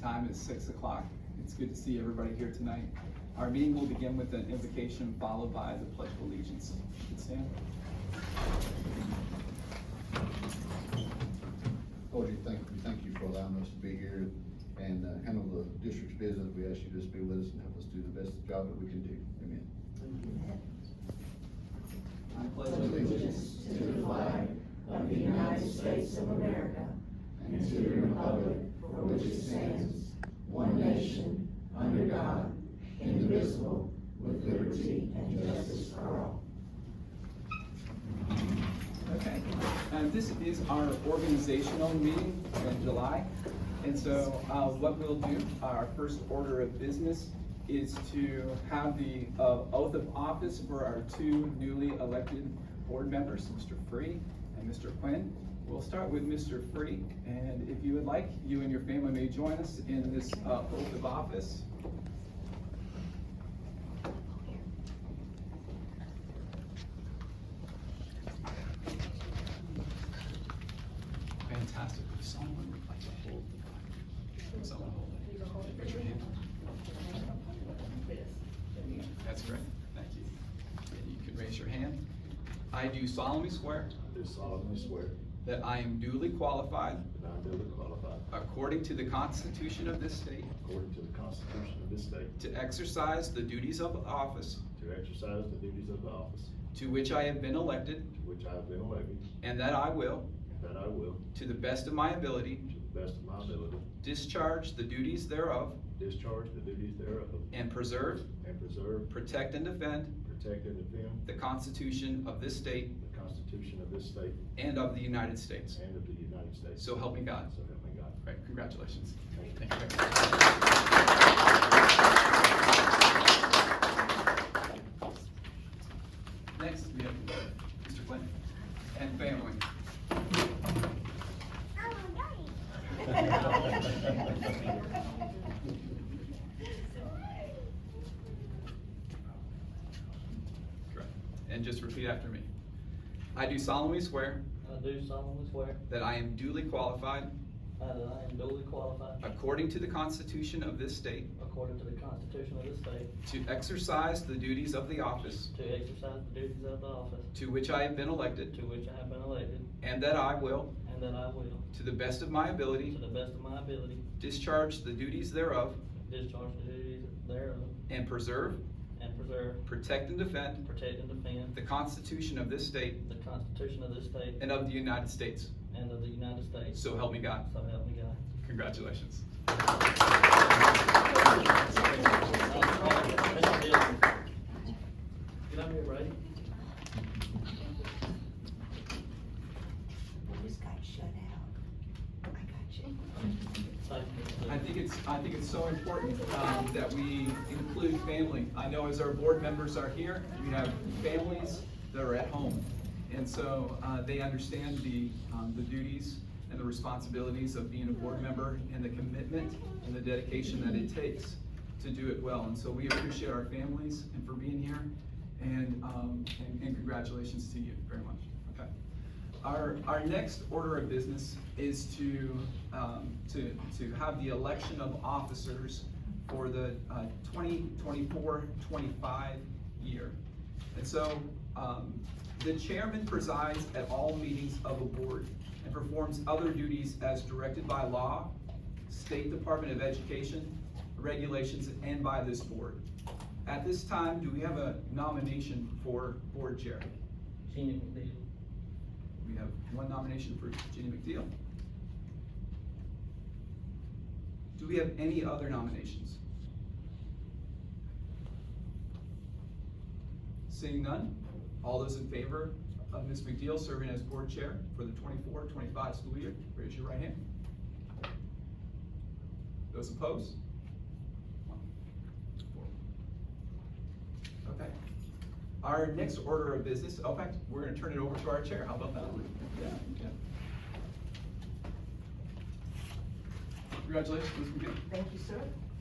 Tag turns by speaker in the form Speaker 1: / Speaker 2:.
Speaker 1: time is six o'clock. It's good to see everybody here tonight. Our meeting will begin with an invocation followed by the pledge of allegiance. Please Stand.
Speaker 2: Lord, you thank, we thank you for allowing us to be here and uh, handle the district's business. We ask you to just be with us and help us do the best job that we can do. Amen.
Speaker 1: I pledge allegiance
Speaker 3: to the flag of the United States of America and to the republic for which it stands, one nation, under God, indivisible, with liberty and justice for all.
Speaker 1: Okay, and this is our organizational meeting in July. And so uh, what we'll do, our first order of business is to have the uh, oath of office for our two newly elected board members, Mr. Free and Mr. Quinn. We'll start with Mr. Free, and if you would like, you and your family may join us in this uh, oath of office. Fantastic. If someone would like to hold the Bible, would someone hold it? Raise your hand. That's great. Thank you. And You can raise your hand. I do solemnly swear
Speaker 4: Do solemnly swear
Speaker 1: that I am duly qualified,
Speaker 4: that I am duly qualified,
Speaker 1: according to the Constitution of this state,
Speaker 4: according to the Constitution of this state,
Speaker 1: to exercise the duties of office
Speaker 4: to exercise the duties of the office
Speaker 1: to which I have been elected,
Speaker 4: to which I have been elected,
Speaker 1: and that I will,
Speaker 4: and that I will,
Speaker 1: to the best of my ability,
Speaker 4: to the best of my ability,
Speaker 1: discharge the duties thereof,
Speaker 4: discharge the duties thereof,
Speaker 1: and preserve,
Speaker 4: and preserve,
Speaker 1: protect, and defend
Speaker 4: protect, and defend
Speaker 1: the Constitution of this state
Speaker 4: the Constitution of this state
Speaker 1: and of the United States.
Speaker 4: and of the United States.
Speaker 1: So help me God.
Speaker 4: So help me God.
Speaker 1: Right, congratulations.
Speaker 4: Thank you.
Speaker 1: Thank you very much. Next, we have Mr. Flynn and family. Correct. And just repeat after me. I do solemnly swear
Speaker 5: I do solemnly swear
Speaker 1: that I am duly qualified,
Speaker 5: that I am duly qualified,
Speaker 1: according to the Constitution of this state,
Speaker 5: according to the Constitution of this state,
Speaker 1: to exercise the duties of the office
Speaker 5: to exercise the duties of the office
Speaker 1: to which I have been elected,
Speaker 5: to which I have been elected,
Speaker 1: and that I will,
Speaker 5: and that I will,
Speaker 1: to the best of my
Speaker 5: to
Speaker 1: ability,
Speaker 5: the best of my ability,
Speaker 1: discharge the duties thereof,
Speaker 5: discharge the duties thereof,
Speaker 1: and preserve,
Speaker 5: and preserve,
Speaker 1: protect, and defend
Speaker 5: protect, and defend
Speaker 1: the Constitution of this state
Speaker 5: the Constitution of this state
Speaker 1: and of the United States.
Speaker 5: and of the United States.
Speaker 1: So help me God.
Speaker 5: So help me God.
Speaker 1: Congratulations.
Speaker 5: Mr. Dillon. Get up here, Brady.
Speaker 3: I just got shut out. I got you.
Speaker 5: Thank you.
Speaker 1: I think it's, I think it's so important um, that we include family. I know as our board members are here, we have families that are at home. And so uh, they understand the, um, the duties and the responsibilities of being a board member and the commitment and the dedication that it takes to do it well. And so we appreciate our families and for being here and, um, and and congratulations to you very much. Okay. Our, our next order of business is to, um, to, to have the election of officers for the, uh, 2024-25 year. And so, um, the chairman presides at all meetings of a board and performs other duties as directed by law, State Department of Education, regulations, and by this board. At this time, do we have a nomination for board chair?
Speaker 5: Gina McNeil.
Speaker 1: We have one nomination for Jenny McDeal. Do we have any other nominations? Seeing none, all those in favor of Ms. McDeal serving as board chair for the 24-25 school year, raise your right hand. Those opposed? One, four. Okay. Our next order of business, oh, in fact, we're gonna turn it over to our chair, how about that? Yeah, okay. Congratulations, Ms. McGee.
Speaker 3: Thank you, sir.